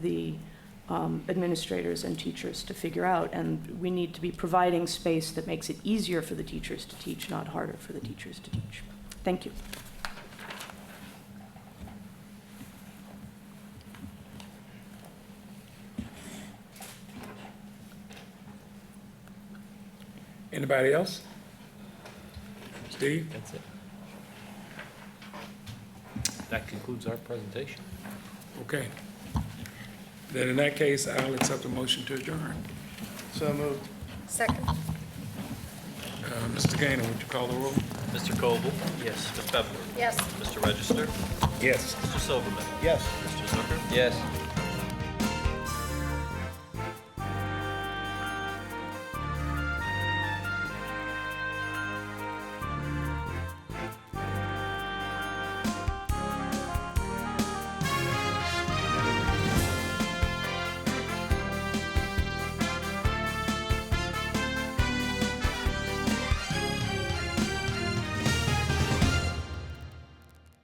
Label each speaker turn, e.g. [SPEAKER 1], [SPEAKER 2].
[SPEAKER 1] the um, administrators and teachers to figure out. And we need to be providing space that makes it easier for the teachers to teach, not harder for the teachers to teach. Thank you.
[SPEAKER 2] Anybody else? Steve?
[SPEAKER 3] That's it. That concludes our presentation.
[SPEAKER 2] Okay. Then in that case, I'll accept a motion to adjourn.
[SPEAKER 4] So moved.
[SPEAKER 5] Second.
[SPEAKER 2] Uh, Mr. Gainer, would you call the roll?
[SPEAKER 6] Mr. Coble? Yes. Ms. Pepler?
[SPEAKER 5] Yes.
[SPEAKER 6] Mr. Register?
[SPEAKER 2] Yes.
[SPEAKER 6] Mr. Silverman?
[SPEAKER 4] Yes.
[SPEAKER 6] Mr. Zucker?
[SPEAKER 4] Yes.